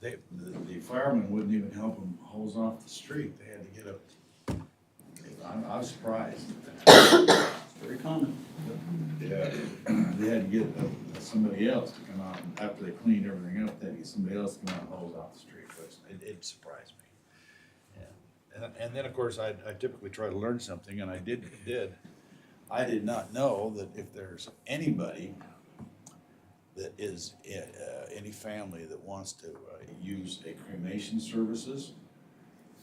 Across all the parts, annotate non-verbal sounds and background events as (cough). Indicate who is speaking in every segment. Speaker 1: They, the, the firemen wouldn't even help them hose off the street, they had to get a, I'm, I was surprised. Very common. Yeah, they had to get uh, somebody else to come out, and after they cleaned everything up, they had to get somebody else to come out and hose off the street, which, it, it surprised me. And, and then, of course, I, I typically try to learn something, and I did, did. I did not know that if there's anybody that is, i- uh, any family that wants to, uh, use a cremation services,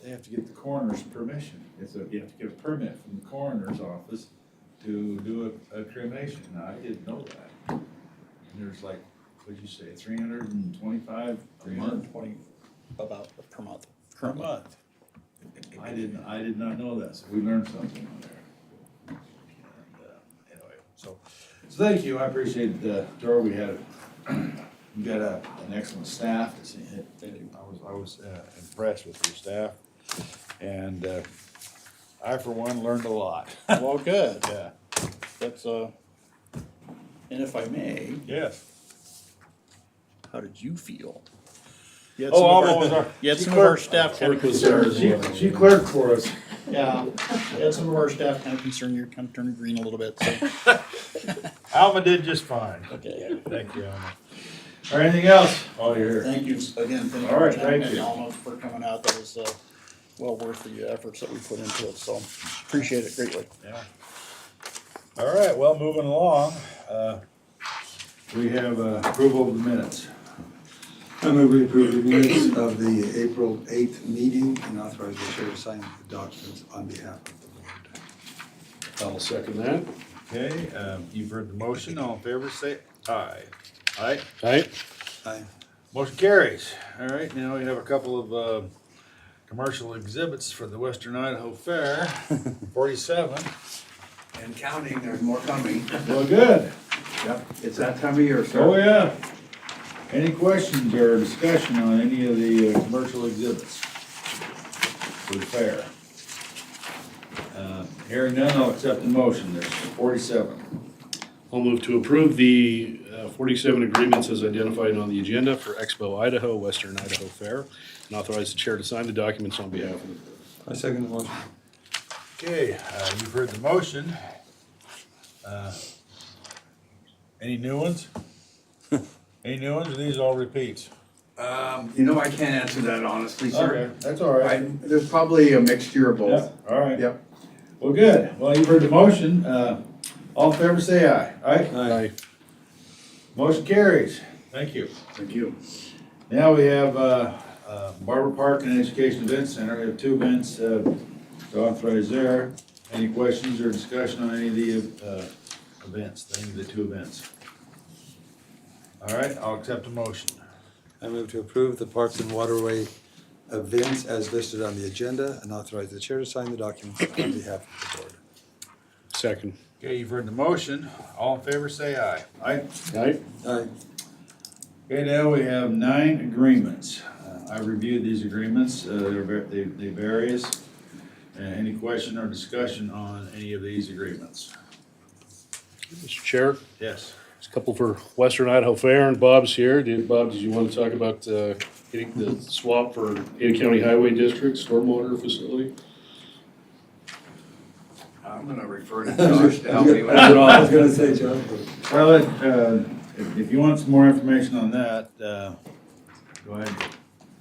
Speaker 1: they have to get the coroner's permission. It's a, you have to get a permit from the coroner's office to do a, a cremation. Now, I didn't know that. And there's like, what'd you say, three hundred and twenty-five a month?
Speaker 2: Twenty, about per month.
Speaker 1: per month. I didn't, I did not know that, so we learned something on there. And, uh, Anyway, so, so thank you, I appreciate, uh, Dora, we had, (clears throat) we got a, an excellent staff. It's- it- I was, I was uh, impressed with your staff, and, uh, I for one learned a lot. (laughs)
Speaker 2: Well, (laughs) good,
Speaker 1: Yeah,
Speaker 2: that's, uh, and if I may,
Speaker 1: yes.
Speaker 2: how did you feel? You had
Speaker 1: Oh,
Speaker 2: some of
Speaker 1: Alma
Speaker 2: our-
Speaker 1: was our-
Speaker 2: You had
Speaker 1: she
Speaker 2: some of our
Speaker 1: clerked-
Speaker 2: staff kind of
Speaker 1: She,
Speaker 2: concerned,
Speaker 1: she clerked for us.
Speaker 2: yeah, you had some of our staff kind of concerned, you're kind of turning green a little bit, so.
Speaker 1: Alma did just fine.
Speaker 2: Okay.
Speaker 1: Thank you, Alma. Or anything else? Oh, you're here.
Speaker 2: Thank you again, thank you.
Speaker 1: All right,
Speaker 2: John
Speaker 1: thank
Speaker 2: and
Speaker 1: you.
Speaker 2: Alma for coming out, that was, uh, well worth the efforts that we put into it, so appreciate it greatly.
Speaker 1: Yeah. All right, well, moving along, uh, we have uh, approval of the minutes.
Speaker 3: I move we approve the minutes of the April 8th meeting and authorize the chair to sign the documents on behalf of the board.
Speaker 4: I'll second that.
Speaker 1: Okay, um, you've heard the motion, all in favor, say aye. Aye,
Speaker 4: Right?
Speaker 3: Aye.
Speaker 1: motion carries. All right, now we have a couple of, uh, commercial exhibits for the Western Idaho (laughs) Fair, forty-seven.
Speaker 3: And counting, there's more coming.
Speaker 1: Well, good.
Speaker 3: Yep, it's that time of year,
Speaker 1: Oh,
Speaker 3: sir.
Speaker 1: yeah. Any questions or discussion on any of the uh, commercial exhibits for the fair? Uh, Hearing none, I'll accept the motion, there's forty-seven.
Speaker 4: I'll move to approve the uh, 47 agreements as identified on the agenda for Expo Idaho, Western Idaho Fair, and authorize the chair to sign the documents on behalf of the board.
Speaker 3: I second the motion.
Speaker 1: Okay, uh, you've heard the motion. Uh, Any new ones? Any new ones, or these all repeats?
Speaker 5: Um, you know, I can't answer that honestly, sir.
Speaker 1: that's all
Speaker 5: I, there's probably a mixture of
Speaker 1: Yeah,
Speaker 5: both.
Speaker 1: all right.
Speaker 5: Yep.
Speaker 1: Well, good, well, you've heard the motion, uh, all in favor, say aye. Aye?
Speaker 4: Aye.
Speaker 1: Motion carries, thank you.
Speaker 5: Thank you.
Speaker 1: Now we have uh, uh, Barber Park and Education Event Center, we have two events uh, to authorize there. Any questions or discussion on any of the uh, events, any of the two events? All right, I'll accept a motion.
Speaker 3: I move to approve the Parks and Waterway events as listed on the agenda and authorize the chair to sign the documents on behalf of the board.
Speaker 4: Second.
Speaker 1: Okay, you've heard the motion, all in favor say aye. Aye.
Speaker 4: Aye.
Speaker 3: Aye.
Speaker 1: Okay, now we have nine agreements. Uh, I reviewed these agreements, uh, they're, ver- they they various. Uh, Any question or discussion on any of these agreements?
Speaker 4: Mr. Chair,
Speaker 1: Yes?
Speaker 4: there's a couple for Western Idaho Fair, and Bob's here. Did, Bob, did you want to talk about uh, getting the swap for Ada County Highway District stormwater facility?
Speaker 5: I'm gonna refer to Josh to help me with
Speaker 3: I
Speaker 5: that.
Speaker 3: was gonna say, John.
Speaker 1: Well, it, uh, if, if you want some more information on that, uh, go ahead.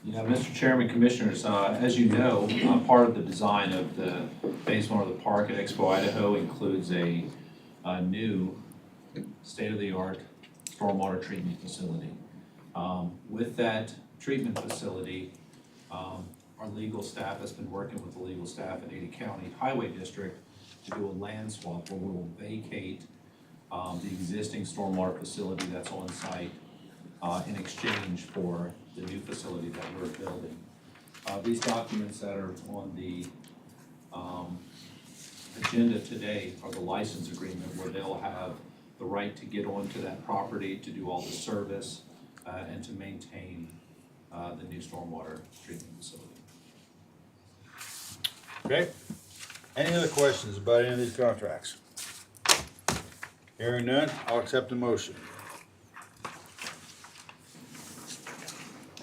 Speaker 6: Yeah, Mr. Chairman, Commissioners, uh, as you know, uh, part of the design of the Phase One of the park at Expo Idaho includes a a new state-of-the-art stormwater treatment facility. Um, With that treatment facility, um, our legal staff has been working with the legal staff at Ada County Highway District to do a land swap where we will vacate um, the existing stormwater facility that's on site uh, in exchange for the new facility that we're building. Uh, These documents that are on the um, agenda today are the license agreement where they'll have the right to get onto that property, to do all the service, uh, and to maintain uh, the new stormwater treatment facility.
Speaker 1: Okay. Any other questions about any of these contracts? Hearing none, I'll accept the motion.